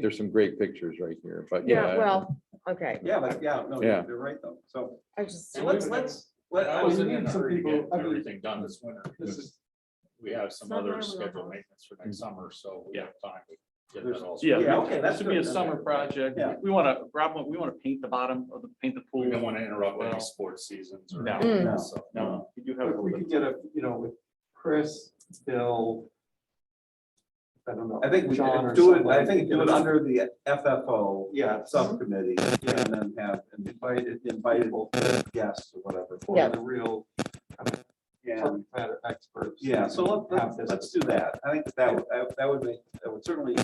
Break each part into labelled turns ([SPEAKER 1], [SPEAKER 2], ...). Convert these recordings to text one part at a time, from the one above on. [SPEAKER 1] There's some great pictures right here, but yeah.
[SPEAKER 2] Yeah, well, okay,
[SPEAKER 3] Yeah, but yeah, no,
[SPEAKER 1] Yeah.
[SPEAKER 3] you're you're right though. So
[SPEAKER 2] I was just,
[SPEAKER 4] Yeah,
[SPEAKER 3] let's, let's, let,
[SPEAKER 4] I
[SPEAKER 3] us
[SPEAKER 4] was in a
[SPEAKER 5] some
[SPEAKER 4] hurry to
[SPEAKER 5] people-
[SPEAKER 4] get
[SPEAKER 5] I mean,
[SPEAKER 4] everything done this winter,
[SPEAKER 5] this
[SPEAKER 4] because we have some other
[SPEAKER 2] Summer, we'll
[SPEAKER 4] scheduled
[SPEAKER 2] have-
[SPEAKER 4] maintenance for next summer, so we
[SPEAKER 5] Yeah.
[SPEAKER 4] have time. to get
[SPEAKER 3] There's-
[SPEAKER 4] that all
[SPEAKER 5] Yeah,
[SPEAKER 4] sorted.
[SPEAKER 3] Yeah, okay,
[SPEAKER 5] this
[SPEAKER 3] that's
[SPEAKER 5] would be a
[SPEAKER 3] good.
[SPEAKER 5] summer project.
[SPEAKER 3] Yeah.
[SPEAKER 5] We want to, Rob, we want to paint the bottom of the, paint the pool.
[SPEAKER 4] We don't want to interrupt
[SPEAKER 5] No.
[SPEAKER 4] any sports seasons or
[SPEAKER 5] No.
[SPEAKER 4] anything
[SPEAKER 3] Mm.
[SPEAKER 4] else, so.
[SPEAKER 5] No, we do have
[SPEAKER 6] If
[SPEAKER 5] a little
[SPEAKER 6] we
[SPEAKER 5] bit.
[SPEAKER 6] could get a, you know, with Chris, Bill. I don't know.
[SPEAKER 3] I think we
[SPEAKER 6] John or
[SPEAKER 3] could do it, I
[SPEAKER 6] somebody,
[SPEAKER 3] think do
[SPEAKER 6] give
[SPEAKER 3] it
[SPEAKER 6] us-
[SPEAKER 3] under the FFO
[SPEAKER 6] Yeah, some
[SPEAKER 3] subcommittee and then have invited, invitable guests or whatever.
[SPEAKER 2] Yeah.
[SPEAKER 6] of the real
[SPEAKER 3] And
[SPEAKER 6] subject matter experts.
[SPEAKER 3] yeah, so let-
[SPEAKER 6] Have
[SPEAKER 3] let's,
[SPEAKER 6] this.
[SPEAKER 3] let's do that. I think that would, that- that would make, that would certainly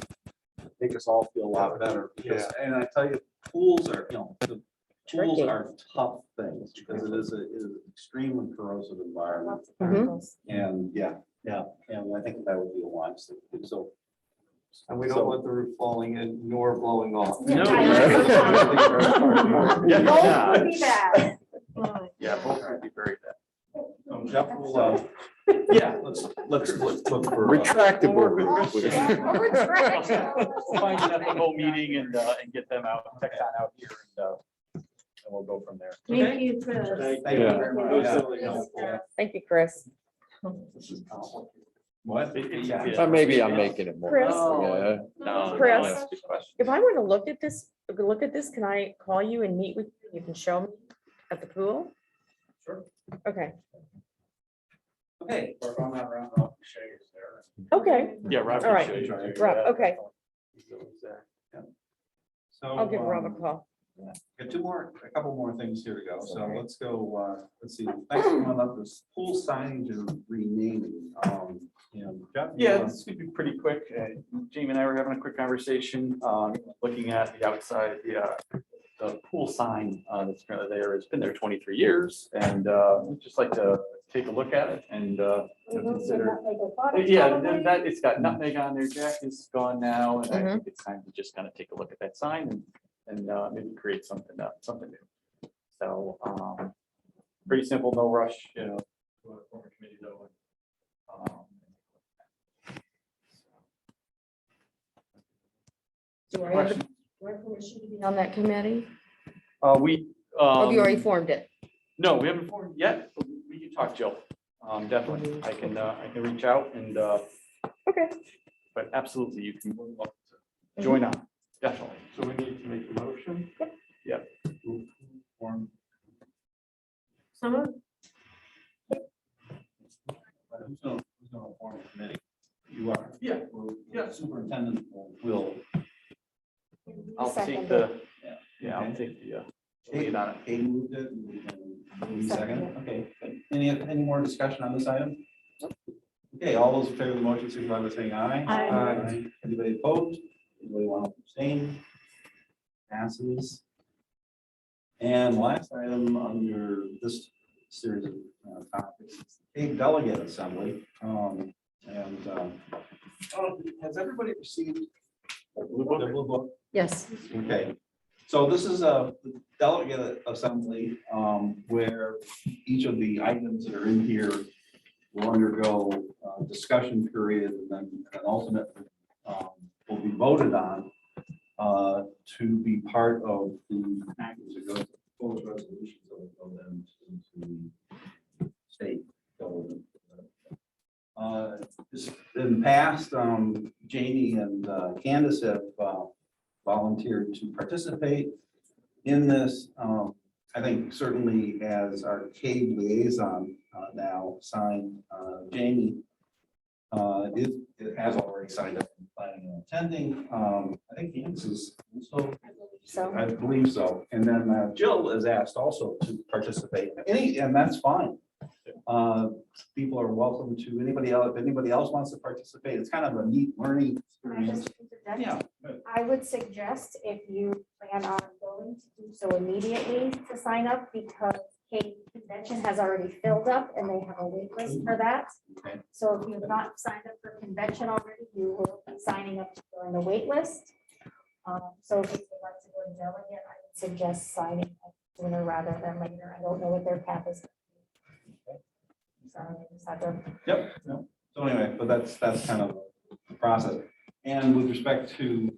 [SPEAKER 3] make us all feel a lot better. because- And I tell you, pools are, you know, the pools
[SPEAKER 2] Tricky.
[SPEAKER 3] are tough things because it is a, it is an extremely corrosive environment.
[SPEAKER 2] Mm-hmm.
[SPEAKER 3] And yeah, yeah, and I think that would be a wise thing. to do. So
[SPEAKER 6] And we don't want the roof falling in nor blowing off.
[SPEAKER 5] No.
[SPEAKER 2] Yeah.
[SPEAKER 5] Yeah, yeah.
[SPEAKER 7] Both would be bad.
[SPEAKER 5] Yeah, both would be very uh,
[SPEAKER 3] um, Jeff will, uh,
[SPEAKER 5] bad. Yeah.
[SPEAKER 3] let's, let's look look for. uh,
[SPEAKER 1] Retractable.
[SPEAKER 5] We'll Find out the whole meeting and, uh, and get them out, tech on out here and, uh, and we'll go from there.
[SPEAKER 7] Thank you, Chris.
[SPEAKER 3] Thank you
[SPEAKER 1] Yeah.
[SPEAKER 3] very much.
[SPEAKER 7] It was
[SPEAKER 3] Yeah.
[SPEAKER 7] really helpful.
[SPEAKER 2] thank you, Chris.
[SPEAKER 3] What?
[SPEAKER 5] It- it-
[SPEAKER 3] Yeah.
[SPEAKER 5] yeah.
[SPEAKER 1] Uh, Maybe I'm making it more.
[SPEAKER 2] Chris.
[SPEAKER 1] Yeah.
[SPEAKER 5] No, no,
[SPEAKER 2] Chris.
[SPEAKER 5] that's a good question.
[SPEAKER 2] If I were to look at this, look at this, can I call you and meet with you? You can show me at the pool?
[SPEAKER 4] Sure.
[SPEAKER 2] Okay,
[SPEAKER 3] Okay.
[SPEAKER 4] Or if I'm not around, I'll show you there.
[SPEAKER 2] okay,
[SPEAKER 5] Yeah, Rob.
[SPEAKER 2] All right. Rob, okay,
[SPEAKER 3] So.
[SPEAKER 2] I'll give Rob a
[SPEAKER 3] um,
[SPEAKER 2] call.
[SPEAKER 3] Got two more, a couple more things here to go. So let's go, uh, let's see, next one up is pool signage and renaming. Um, and Jeff, you
[SPEAKER 5] Yeah,
[SPEAKER 3] wanna-
[SPEAKER 5] this could be pretty quick. Uh, Jamie and I were having a quick conversation, um, looking at the outside, the, uh, the pool sign, uh, that's currently there. It's been there twenty-three years and, uh, we'd just like to take a look at it and, uh, you know, consider. Yeah, then that, it's got nutmeg on there. Jack is gone now and I think it's time to just kind of take a look at that sign and, and, uh, maybe create something, up, something new. So, um, pretty simple, no rush, you know. to a former committee though. Um,
[SPEAKER 2] Do I have do I have permission to be on that committee?
[SPEAKER 5] Uh, we,
[SPEAKER 2] Oh, you already
[SPEAKER 5] um,
[SPEAKER 2] formed it.
[SPEAKER 5] no, we haven't formed yet. but We can talk, Jill. Um, definitely. I can, uh, I can reach out and, uh,
[SPEAKER 2] Okay.
[SPEAKER 5] but absolutely, you can more than welcome to join on, definitely.
[SPEAKER 6] So we need to make a motion.
[SPEAKER 5] Form-
[SPEAKER 3] Who's gonna, who's gonna form a committee? You are.
[SPEAKER 5] Yeah,
[SPEAKER 3] Well,
[SPEAKER 5] yeah.
[SPEAKER 3] Superintendent will- will
[SPEAKER 5] I'll take the,
[SPEAKER 3] Yeah.
[SPEAKER 5] yeah, I'll
[SPEAKER 3] Okay.
[SPEAKER 5] take the, uh, lead on it.
[SPEAKER 3] Kate moved it. and we can move Second,
[SPEAKER 7] Second.
[SPEAKER 3] okay. Any, any more discussion on this item? Okay, all those in favor of the motion, signify by saying aye.
[SPEAKER 7] Aye.
[SPEAKER 3] Anybody opposed? Anybody want to abstain? Passes. And last item under this series of uh, topics, is the big delegate assembly. Um, and, um, oh, has everybody received the blue book? The blue book?
[SPEAKER 2] Yes.
[SPEAKER 3] Okay, so this is a delegate assembly um, where each of the items that are in here will undergo uh, discussion period and then an ultimate um, will be voted on uh, to be part of the package that goes, those resolutions that will go then into state government. Uh, this- In the past, um, Jamie and uh, Candace have uh, volunteered to participate in this. Um, I think certainly as our CAVE liaison uh, now signed, uh, Jamie uh, is, has already signed up and planning on attending. Um, I think Hans is also
[SPEAKER 2] So.
[SPEAKER 3] I believe so. And then uh, Jill is asked also to participate. Any, and that's fine. Uh, People are welcome to anybody else, if anybody else wants to participate. It's kind of a neat learning experience. Yeah.
[SPEAKER 7] I would suggest if you plan on going to do so immediately to sign up because Kate convention has already filled up and they have a wait list for that.
[SPEAKER 3] Okay.
[SPEAKER 7] So if you've not signed up for convention already, you will be signing up to join the wait list. Um, So if you'd like to go to delegate, I would suggest signing up sooner rather than later. I don't know what their path is. Sorry, I just had to
[SPEAKER 3] Yep, no. So anyway, but that's, that's kind of the process. And with respect to